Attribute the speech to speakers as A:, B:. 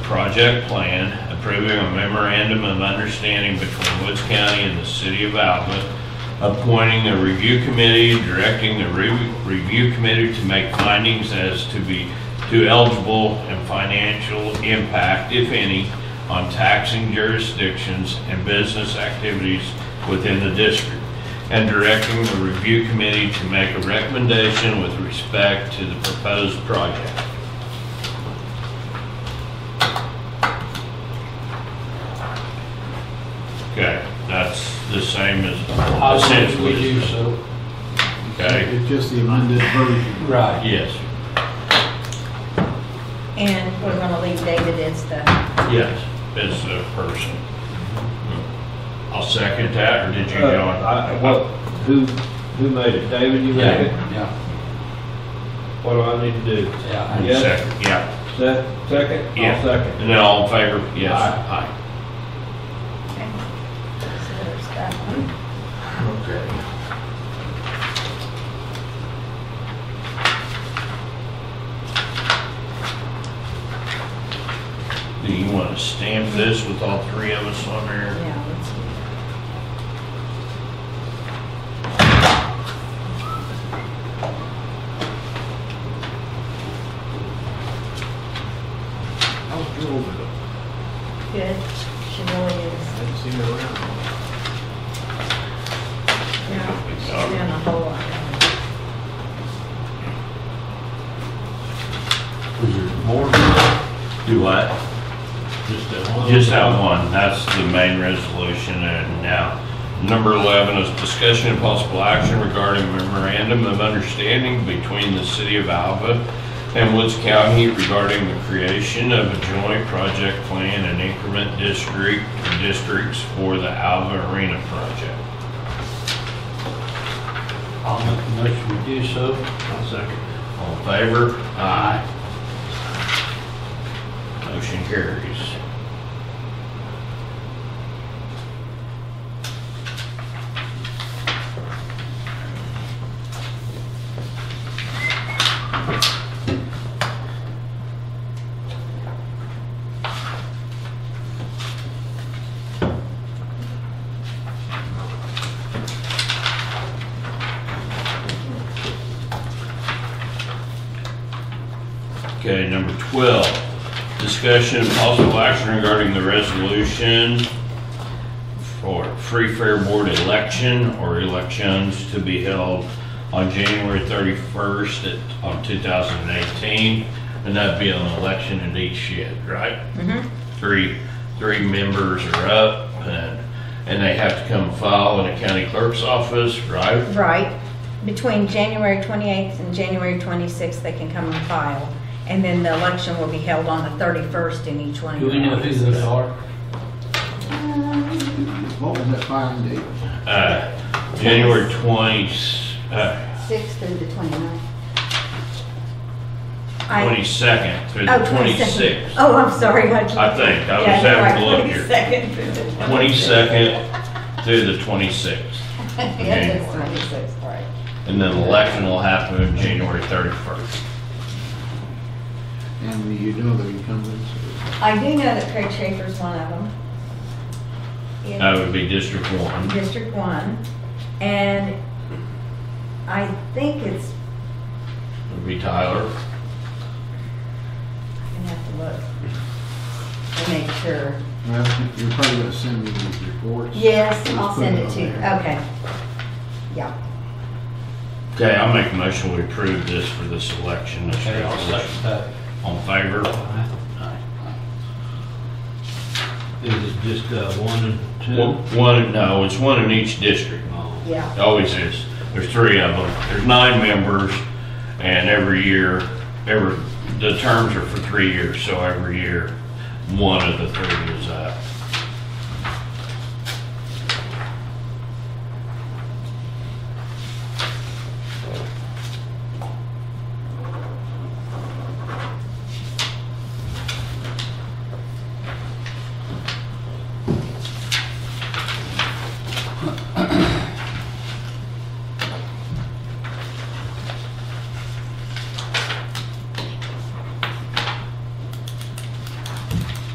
A: project plan approving a memorandum of understanding between Woods County and the city of Alba, appointing a review committee, directing the re- review committee to make findings as to be, to eligible and financial impact, if any, on taxing jurisdictions and business activities within the district and directing the review committee to make a recommendation with respect to the proposed project. Okay, that's the same
B: I
A: as
B: think
A: essentially,
B: we do so.
A: okay?
C: It's just the amended version.
B: Right.
A: Yes,
D: And we're gonna leave David as the,
A: yes, it's a person. I'll second that, or did you,
E: Mm-hmm. Uh,
A: John?
E: I- What, who, who made it? David, you made it?
B: Yeah,
E: What do I need to do?
B: yeah.
A: You
E: yeah.
A: Second, yeah,
E: Se- Second?
A: Yeah.
E: I'll second.
A: and then all in favor? Yes,
E: Aye.
A: aye.
D: okay. So there's that one.
A: Okay. Do you want to stamp this with all three of us on there?
D: Yeah, let's do that.
C: How's Gerald doing?
D: Good, she really is.
C: Haven't seen her around.
D: Yeah, she's doing a whole lot.
B: Was there more?
A: Do what?
B: Just that one?
A: Just that one, that's the main resolution, and now, number 11 is discussion and possible action regarding memorandum of understanding between the city of Alva and Woods County regarding the creation of a joint project plan and increment district, districts for the Alva Arena project.
B: I'll make the motion we do so. I'll second.
A: All in favor?
B: Aye.
A: Motion carries. Okay, number 12, discussion and possible action regarding the resolution for free fair board election or elections to be held on January 31st at- of 2018, and that'd be an election in each shed, right? Three, three members are up, and, and they have to come file in the county clerk's office, right?
D: Right, between January 28th and January 26th, they can come and file. And then the election will be held on the 31st in each one. of
B: Do we know
D: your
B: who those are?
C: What was that fine date?
A: Uh, January 20th, uh,
F: 6th through the 29th.
D: I-
A: 22nd through the
D: Oh, 22nd.
A: 26th,
D: Oh, I'm sorry. I
A: I think. I was
D: Yeah, you're
A: having a look
D: right,
A: here.
D: 22nd through
A: 22nd through
D: the
A: the 26th.
F: Yes, it's 26th, right.
A: And then election will happen January 31st.
C: And you know the incumbents.
D: I do know that Craig Schaefer's one of them.
A: That
D: In
A: would be District 1.
D: District One. And I think it's,
A: Would be Tyler.
D: I'm gonna have to look.
F: To make sure.
C: Well, you're probably gonna send me these reports.
F: Yes,
C: Just
F: I'll
C: put
F: send
C: on
F: it to you.
C: there.
D: Okay. Yeah,
A: Okay, I'll make a motion we approve this for this election, this
B: Okay, I'll second
A: resolution.
B: that.
A: On favor?
B: Is it just uh, one and
A: One,
B: two?
A: one- no, it's one in each district.
B: Oh.
D: yeah.
A: It Always is. There's three of them. There's nine members, and every year, every, the terms are for three years, so every year, one of the three is up.